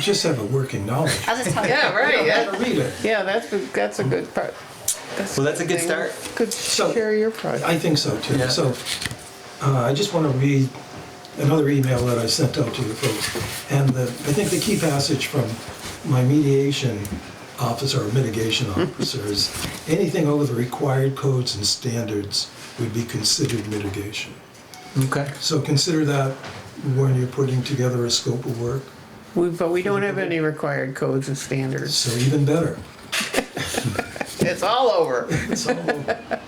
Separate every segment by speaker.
Speaker 1: Just have a working knowledge.
Speaker 2: I'll just tell you.
Speaker 3: Yeah, right,
Speaker 1: Gotta
Speaker 3: yeah.
Speaker 1: read it.
Speaker 3: Yeah, that's, a- that's a good part.
Speaker 4: Well, that's a
Speaker 3: thing.
Speaker 4: good start.
Speaker 3: Good
Speaker 1: So-
Speaker 3: share your project.
Speaker 1: I think so too.
Speaker 4: Yeah.
Speaker 1: So uh, I just want to read another email that I sent out to you folks. And the, I think the key passage from my mediation officer or mitigation officer is anything over the required codes and standards would be considered mitigation.
Speaker 4: Okay.
Speaker 1: So consider that when you're putting together a scope of work.
Speaker 3: We- But we don't have any required codes and standards.
Speaker 1: So even better.
Speaker 3: It's all over.
Speaker 1: It's all over.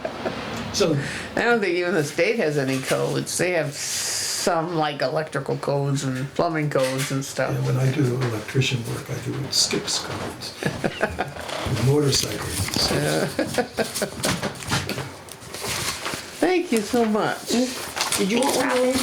Speaker 1: So
Speaker 3: I don't think even the state has any codes. They have some like electrical codes and plumbing codes and stuff.
Speaker 1: And when I do electrician work, I do it skips cones. Motorcycles.
Speaker 3: Thank you so much.
Speaker 1: Did you want one, Elaine?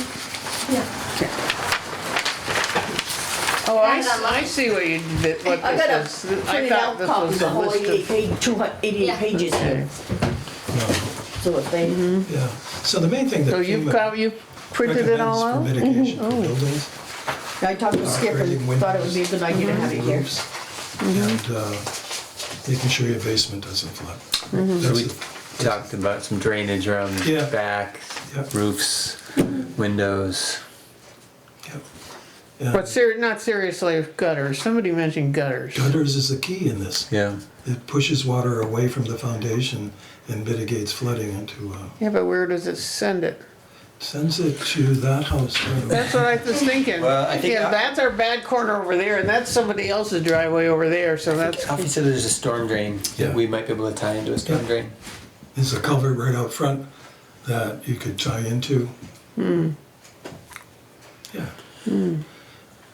Speaker 3: Oh, I,
Speaker 2: Yeah,
Speaker 3: s- I see what you, did- what
Speaker 5: I got a
Speaker 3: this is. I
Speaker 5: printed
Speaker 3: thought
Speaker 5: out
Speaker 3: this
Speaker 5: copy,
Speaker 3: was
Speaker 5: the
Speaker 3: a
Speaker 5: whole eighty-eight
Speaker 3: list of.
Speaker 5: page, two hundred eighty-eight
Speaker 2: Yeah.
Speaker 5: pages
Speaker 3: Okay.
Speaker 5: here, so if they,
Speaker 3: Mm-hmm.
Speaker 1: Yeah, so the main thing that
Speaker 3: So you've got,
Speaker 1: FEMA
Speaker 3: you printed it all
Speaker 1: recommends for
Speaker 3: out? Mm-hmm. Oh.
Speaker 1: mitigation for buildings,
Speaker 5: I talked to Skip and
Speaker 1: Operating
Speaker 5: thought it would be a good idea to have it
Speaker 3: Mm-hmm.
Speaker 5: here.
Speaker 1: roofs, and uh, making sure your basement doesn't flood.
Speaker 3: Mm-hmm.
Speaker 4: So
Speaker 1: That's
Speaker 4: we
Speaker 1: it.
Speaker 4: talked about some drainage around the
Speaker 1: Yeah.
Speaker 4: back,
Speaker 1: Yeah.
Speaker 4: roofs, windows.
Speaker 1: Yep. And
Speaker 3: But ser, not seriously gutters. Somebody mentioned gutters.
Speaker 1: Gutters is the key in this.
Speaker 4: Yeah.
Speaker 1: It pushes water away from the foundation and mitigates flooding into, uh,
Speaker 3: Yeah, but where does it send it?
Speaker 1: sends it to that house. right away.
Speaker 3: That's what I was thinking.
Speaker 4: Well, I think
Speaker 3: Yeah,
Speaker 4: I-
Speaker 3: that's our bad corner over there and that's somebody else's driveway over there, so that's,
Speaker 4: Alfie said there's a storm drain
Speaker 1: Yeah.
Speaker 4: that we might be able to tie into a storm
Speaker 1: Yeah.
Speaker 4: drain.
Speaker 1: There's a culvert right out front that you could tie into.
Speaker 3: Hmm.
Speaker 1: Yeah.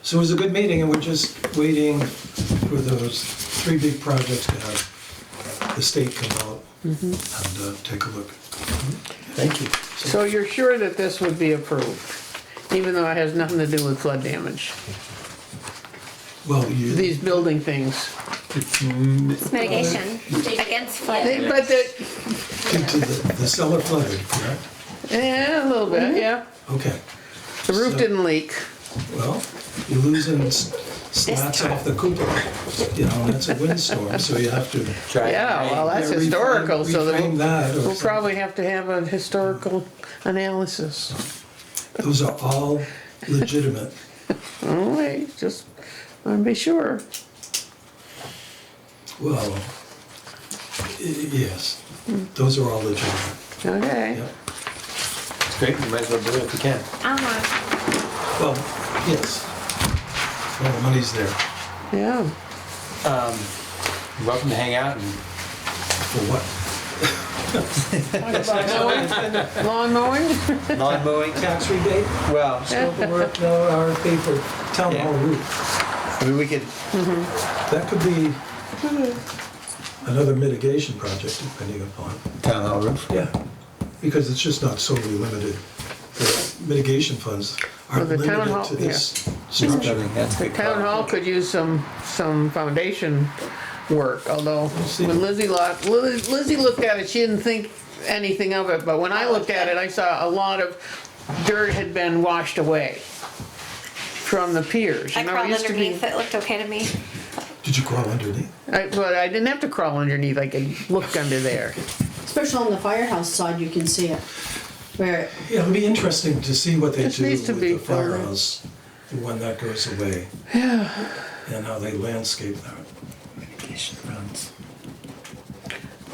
Speaker 1: So it was a good meeting, and we're just waiting for those three big projects to have the state come out
Speaker 3: Mm-hmm.
Speaker 1: and uh, take a look.
Speaker 4: Thank you.
Speaker 3: so you're sure that this would be approved? Even though it has nothing to do with flood damage,
Speaker 1: Well, you,
Speaker 3: these building things.
Speaker 2: It's mitigation against flood.
Speaker 3: They- But the,
Speaker 1: into the the cellar flooded, correct?
Speaker 3: Yeah, a little bit, yeah.
Speaker 1: Okay,
Speaker 3: The roof
Speaker 1: So-
Speaker 3: didn't leak.
Speaker 1: well, you're losing s- slats off the cupola, you know, that's a windstorm, so you have to.
Speaker 4: Try
Speaker 3: Yeah, well, that's
Speaker 1: Yeah, reframe-
Speaker 3: historical, so that
Speaker 1: reframe that or
Speaker 3: we'll- we'll
Speaker 1: something.
Speaker 3: probably have to have a historical analysis.
Speaker 1: Those are all legitimate.
Speaker 3: All right, Oh, just, I'll be sure.
Speaker 1: Well, y- yes, those are all legitimate.
Speaker 3: Okay.
Speaker 1: Yep.
Speaker 4: It's great. You might as well do it if you can.
Speaker 2: Uh-huh.
Speaker 1: Well, yes. Well, the money's there
Speaker 3: Yeah.
Speaker 4: Um, you're welcome to hang out and
Speaker 1: for what?
Speaker 3: Lawn mowing?
Speaker 4: lawn mowing.
Speaker 1: Tax rebate,
Speaker 4: Well,
Speaker 1: scope of work, no RFP for town hall roof.
Speaker 4: I mean, we could.
Speaker 1: That could be another mitigation project depending upon.
Speaker 4: Town hall roof.
Speaker 1: Yeah. Because it's just not solely limited. The mitigation funds are
Speaker 3: Well, the town
Speaker 1: limited
Speaker 3: hall-
Speaker 1: to this
Speaker 4: I
Speaker 1: structure.
Speaker 4: think that's a good.
Speaker 3: Town
Speaker 4: call.
Speaker 3: hall could use some, some foundation work, although when Lizzie looked, Liz- Lizzie looked at it, she didn't think anything of it, but when I looked at it, I saw a lot of dirt had been washed away from the piers.
Speaker 2: I
Speaker 3: You know, it
Speaker 2: crawled
Speaker 3: used to be-
Speaker 2: underneath, it looked okay to me.
Speaker 1: Did you crawl underneath?
Speaker 3: I, but I didn't have to crawl underneath, I could look under there.
Speaker 6: Especially on the firehouse side, you can see it. Where,
Speaker 1: Yeah, it'll be interesting to see what they
Speaker 3: This
Speaker 1: do
Speaker 3: needs
Speaker 1: with
Speaker 3: to
Speaker 1: the
Speaker 3: be filled in.
Speaker 1: firehouse when that goes away. Yeah. And how they landscape that.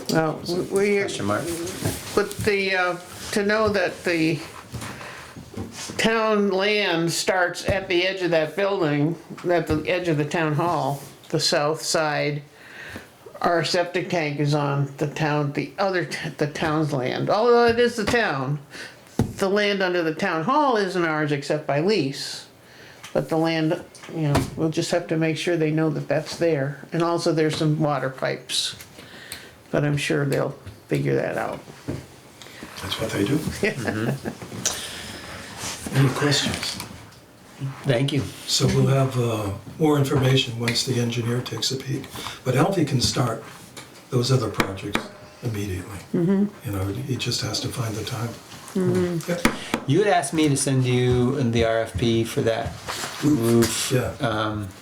Speaker 3: Well, we, we-
Speaker 4: Question mark.
Speaker 3: but the, uh, to know that the town land starts at the edge of that building, at the edge of the town hall, the south side. Our septic tank is on the town, the other, t- the town's land, although it is the town. The land under the town hall isn't ours except by lease. But the land, you know, we'll just have to make sure they know that that's there. And also there's some water pipes. But I'm sure they'll figure that out.
Speaker 1: That's what they do. Mm-hmm. Any questions?
Speaker 4: Thank you.
Speaker 1: So we'll have uh, more information once the engineer takes a peek. But Alfie can start those other projects immediately.
Speaker 3: Mm-hmm.
Speaker 1: You know, he just has to find the time. Yep.
Speaker 4: You had asked me to send you the RFP for that roof.
Speaker 1: Yeah.
Speaker 4: Um,